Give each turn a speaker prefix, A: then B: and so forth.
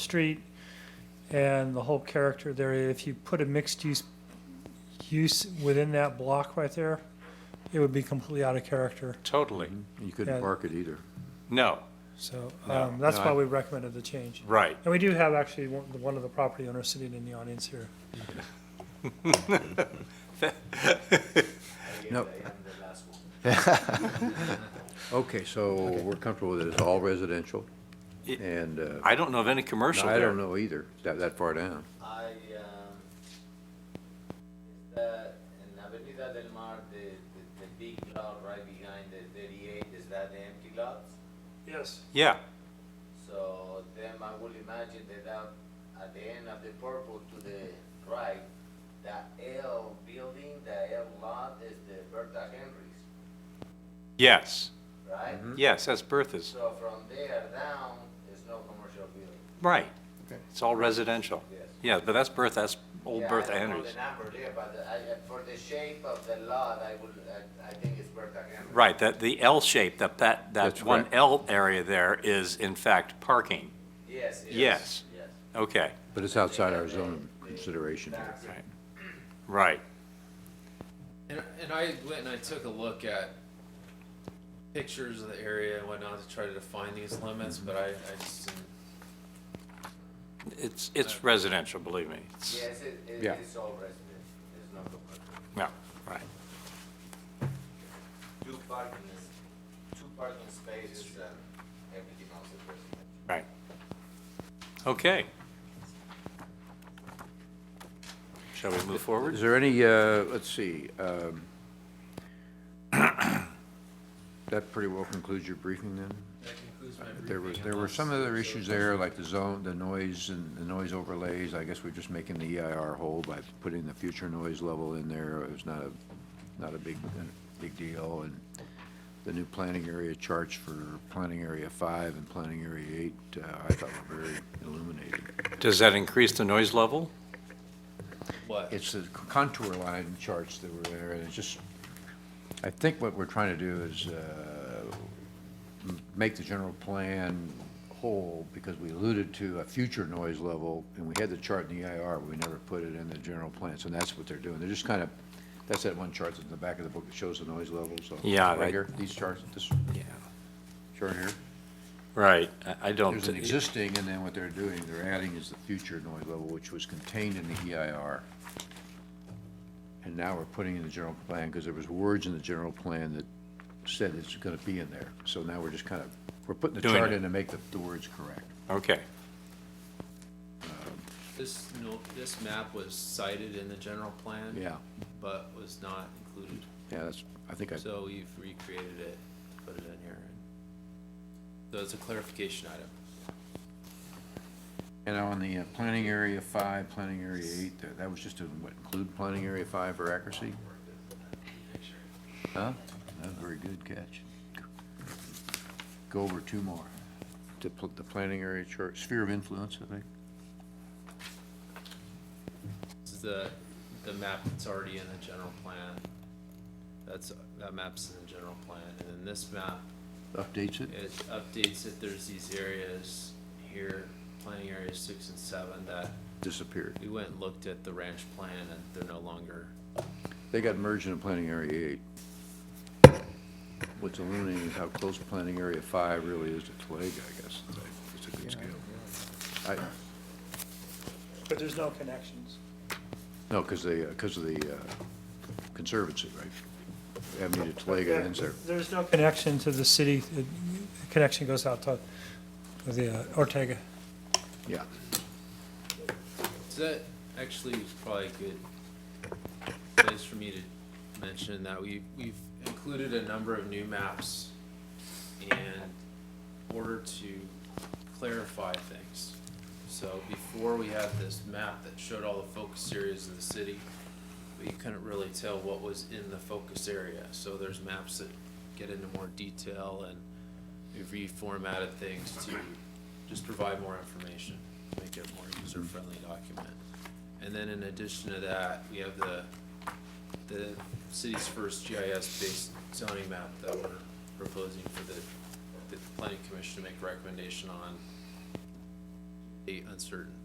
A: street and the whole character of the area, if you put a mixed-use use within that block right there, it would be completely out of character,
B: Totally.
C: You
A: Yeah.
C: couldn't park it either.
B: No,
A: so,
B: No,
A: um, that's
B: no,
A: why
B: I-
A: we recommended the change.
B: right.
A: And we do have actually one, one of the property owners sitting in the audience here.
C: No. Okay, so we're comfortable with it, it's all residential,
B: It-
C: and uh,
B: I don't know of any commercial
C: I don't
B: there.
C: know either, that, that far down.
D: I, um, the, in Avenida del Mar, the, the, the big lot right behind the thirty-eight, is that the empty lots?
A: Yes.
B: Yeah,
D: So then I will imagine that out at the end of the purple to the right, that L building, the L lot is the Bertha Henry's,
B: yes,
D: right?
B: yes, that's Bertha's.
D: So from there down, there's no commercial building,
B: Right. It's all residential.
D: yes.
B: Yeah, but that's Bertha, that's
D: Yeah,
B: old
D: I
B: Bertha
D: don't know
B: Oh, Henry's.
D: The number there, but I, I- for the shape of the lot, I would, I, I think it's Bertha Henry.
B: Right, that, the L shape, that, that, that
C: That's
B: one
C: correct.
B: L area there is in fact parking.
D: Yes,
B: Yes.
D: yes. Yes.
B: Okay,
C: But it's outside our zone consideration here.
B: right.
E: And, and I went and I took a look at pictures of the area and whatnot to try to define these limits, but I, I just didn't.
B: It's, it's residential, believe me. It's-
D: Yes, it, it
C: Yeah.
D: is all residential, there's no commercial.
B: No, right.
D: Two parking, is- two parking spaces and everything else is residential.
B: Right. Okay. Shall we move forward?
C: Is there any, uh, let's see, um, that pretty well concludes your briefing then?
E: That concludes my
C: There was,
E: briefing
C: there were
E: unless-
C: some other issues there, like the zone, the noise and the noise overlays. I guess we're just making the EIR whole by putting the future noise level in there. It was not a, not a big, big deal. And the new planning area charts for planning area five and planning area eight, uh, I thought were very illuminating.
B: Does that increase the noise level?
E: What?
C: It's the contour line charts that were there, and it's just, I think what we're trying to do is uh, m- make the general plan whole, because we alluded to a future noise level, and we had the chart in the EIR, but we never put it in the general plan, so that's what they're doing. They're just kind of, that's that one chart that's in the back of the book that shows the noise levels. so-
B: Yeah, that-
C: Right here, these charts, this
B: Yeah.
C: chart here.
B: Right, I- I don't.
C: There's an existing, and then what they're doing, they're adding is the future noise level, which was contained in the EIR. And now we're putting in the general plan, because there was words in the general plan that said it's gonna be in there. So now we're just kind of, we're putting the
B: Doing
C: chart
B: it.
C: in to make the, the words correct.
B: Okay,
E: This, no, this map was cited in the general plan.
C: Yeah,
E: But was not included,
C: yeah, that's, I think I,
E: so we've recreated it, to put it in here. So it's a clarification item.
C: and on the uh, planning area five, planning area eight, that- that was just to, what, include planning area five for accuracy? Huh? That's a very good catch. Go over two more. To pl- the planning area chart, sphere of influence, I think.
E: This is the, the map that's already in the general plan. That's, that map's in the general plan, and then this map
C: Updates it?
E: it updates it, there's these areas here, planning areas six and seven, that
C: Disappeared.
E: we went and looked at the ranch plan and they're no longer,
C: They got merged into planning area eight. What's illuminating is how close planning area five really is to Toega, I guess. It's a good scale. I,
A: But there's no connections.
C: no, because they, because of the uh, conservancy, right? Avenida Toega ends there.
A: There's no connection to the city, the connection goes out to the uh, Ortega.
C: Yeah.
E: so that actually was probably a good place for me to mention that we, we've included a number of new maps in order to clarify things. So before we had this map that showed all the focus areas of the city, but you couldn't really tell what was in the focus area. So there's maps that get into more detail and we reformatted things to just provide more information, make it a more user-friendly document. And then in addition to that, we have the, the city's first GIS-based zoning map that we're proposing for the, the planning commission to make recommendation on uncertain.